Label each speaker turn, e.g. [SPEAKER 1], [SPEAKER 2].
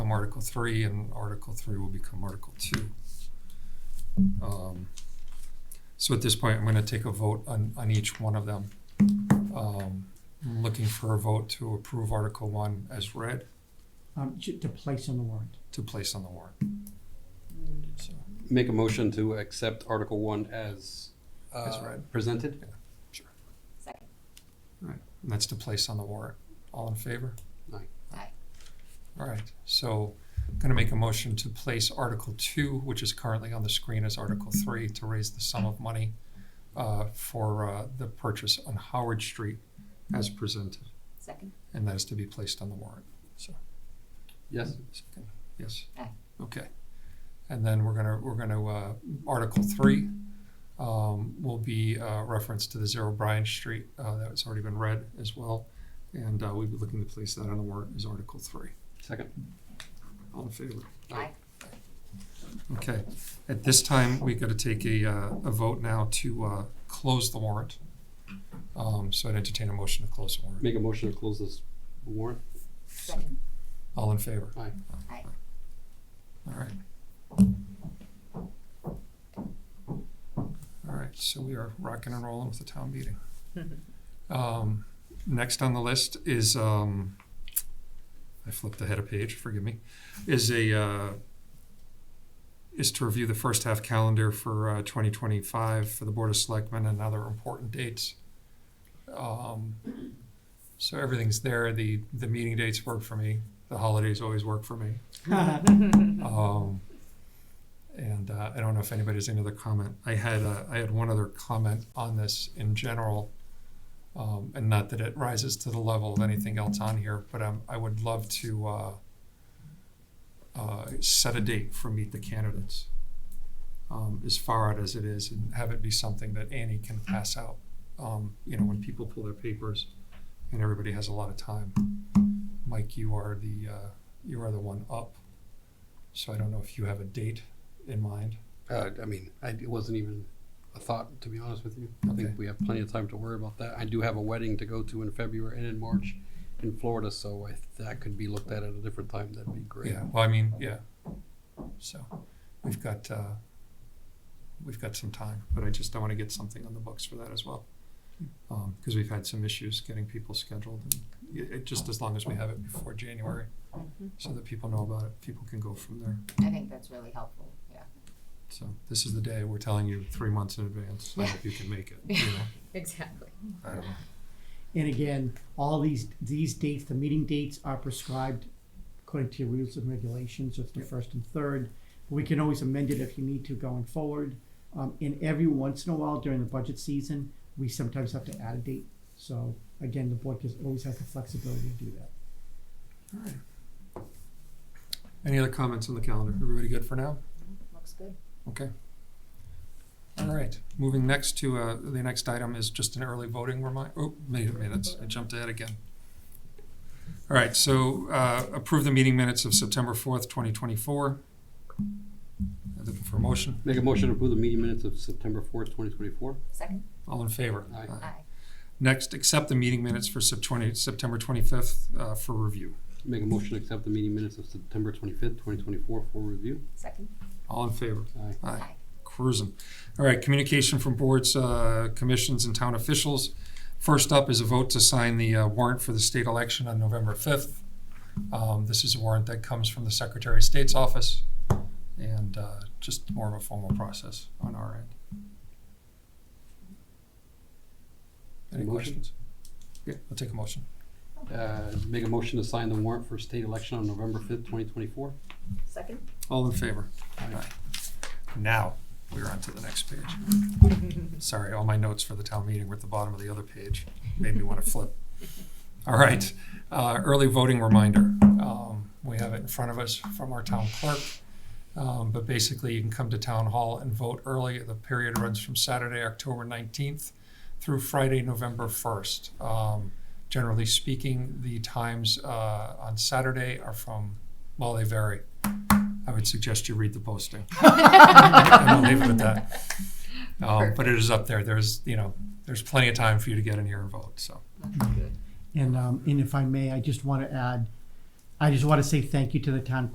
[SPEAKER 1] become Article Three, and Article Three will become Article Two. Um, So at this point, I'm gonna take a vote on, on each one of them. Um, I'm Looking for a vote to approve Article One as read,
[SPEAKER 2] um, ju- to place on the warrant.
[SPEAKER 1] to place on the warrant. So,
[SPEAKER 3] Make a motion to accept Article One as
[SPEAKER 1] As
[SPEAKER 3] uh,
[SPEAKER 1] read.
[SPEAKER 3] presented?
[SPEAKER 4] Second.
[SPEAKER 1] and That's to place on the warrant. All in favor?
[SPEAKER 3] Aye.
[SPEAKER 4] Aye.
[SPEAKER 1] All right, so I'm gonna make a motion to place Article Two, which is currently on the screen as Article Three, to raise the sum of money uh, for uh, the purchase on Howard Street as presented,
[SPEAKER 4] Second.
[SPEAKER 1] and that is to be placed on the warrant, so.
[SPEAKER 3] Yes?
[SPEAKER 1] Second. Yes.
[SPEAKER 4] Aye.
[SPEAKER 1] Okay. And then we're gonna, we're gonna, uh, Article three, um, will be, uh, reference to the Zero Bryan Street, uh, that's already been read as well. And, uh, we'll be looking to place that on the warrant as Article three.
[SPEAKER 3] Second?
[SPEAKER 1] All in favor?
[SPEAKER 4] Aye.
[SPEAKER 1] Okay. At this time, we gotta take a, uh, a vote now to, uh, close the warrant. Um, so I'd entertain a motion to close the warrant.
[SPEAKER 3] Make a motion to close this warrant?
[SPEAKER 4] Second.
[SPEAKER 1] All in favor?
[SPEAKER 3] Aye.
[SPEAKER 4] Aye.
[SPEAKER 1] All right. All right, so we are rocking and rolling with the town meeting. Um, next on the list is, um, I flipped ahead a page, forgive me, is a, uh, is to review the first half calendar for, uh, twenty twenty-five for the Board of Selectmen and other important dates. Um, so everything's there, the, the meeting dates work for me, the holidays always work for me. Um, and uh, I don't know if anybody has any other comment. I had uh, I had one other comment on this in general, um, and not that it rises to the level of anything else on here, but um, I would love to uh, uh, set a date for meet the candidates, um, as far out as it is, and have it be something that Annie can pass out. Um, you know, when people pull their papers, and everybody has a lot of time. Mike, you are the uh, you are the one up. So I don't know if you have a date in mind.
[SPEAKER 3] Uh, I mean, I, it wasn't even a thought, to be honest with you. I
[SPEAKER 1] Okay.
[SPEAKER 3] think we have plenty of time to worry about that. I do have a wedding to go to in February and in March in Florida, so I, that could be looked at at a different time. That'd be great.
[SPEAKER 1] Yeah, well, I mean, yeah. So we've got, uh, we've got some time, but I just, I wanna get something on the books for that as well. Um, cause we've had some issues getting people scheduled and it, it, just as long as we have it before January, so that people know about it, people can go from there.
[SPEAKER 4] I think that's really helpful, yeah.
[SPEAKER 1] So this is the day we're telling you three months in advance, so if you can make it, you know,
[SPEAKER 4] Exactly.
[SPEAKER 1] I don't know.
[SPEAKER 2] And again, all these, these dates, the meeting dates are prescribed according to your rules and regulations, so it's the first and third. We can always amend it if you need to going forward. Um, and every once in a while during the budget season, we sometimes have to add a date. So again, the board just always has the flexibility to do that.
[SPEAKER 1] Alright. Any other comments on the calendar? Everybody good for now?
[SPEAKER 4] Mm-hmm. Looks good.
[SPEAKER 1] Okay. All right, moving next to, uh, the next item is just an early voting remind, oh, minute, minutes, I jumped ahead again. All right, so, uh, approve the meeting minutes of September fourth, twenty twenty-four. Looking for a motion,
[SPEAKER 3] Make a motion to approve the meeting minutes of September fourth, twenty twenty-four?
[SPEAKER 4] Second?
[SPEAKER 1] all in favor?
[SPEAKER 3] Aye.
[SPEAKER 4] Aye.
[SPEAKER 1] Next, accept the meeting minutes for Sep- 20 September twenty-fifth, uh, for review.
[SPEAKER 3] Make a motion to accept the meeting minutes of September twenty-fifth, twenty twenty-four for review?
[SPEAKER 4] Second?
[SPEAKER 1] All in favor?
[SPEAKER 3] Aye.
[SPEAKER 1] Aye. cruising. All right, communication from boards, uh, commissions, and town officials. First up is a vote to sign the uh, warrant for the state election on November 5th. Um, This is a warrant that comes from the Secretary of State's office, and uh, just more of a formal process on our end. Any
[SPEAKER 3] Motion?
[SPEAKER 1] questions? Yeah, I'll take a motion.
[SPEAKER 3] Uh, make a motion to sign the warrant for state election on November fifth, twenty twenty-four?
[SPEAKER 4] Second?
[SPEAKER 1] All in favor? Aye. Now, we're on to the next page. Sorry, all my notes for the town meeting were at the bottom of the other page. Made me want to flip. All right, uh, early voting reminder. Um, we have it in front of us from our town clerk. Um, but basically, you can come to town hall and vote early. The period runs from Saturday, October nineteenth through Friday, November first. Um, generally speaking, the times, uh, on Saturday are from, well, they vary. I would suggest you read the posting. And I'll leave it at that. Um, but it is up there. There's, you know, there's plenty of time for you to get in here and vote, so.
[SPEAKER 4] That's good.
[SPEAKER 2] And, um, and if I may, I just want to add, I just want to say thank you to the town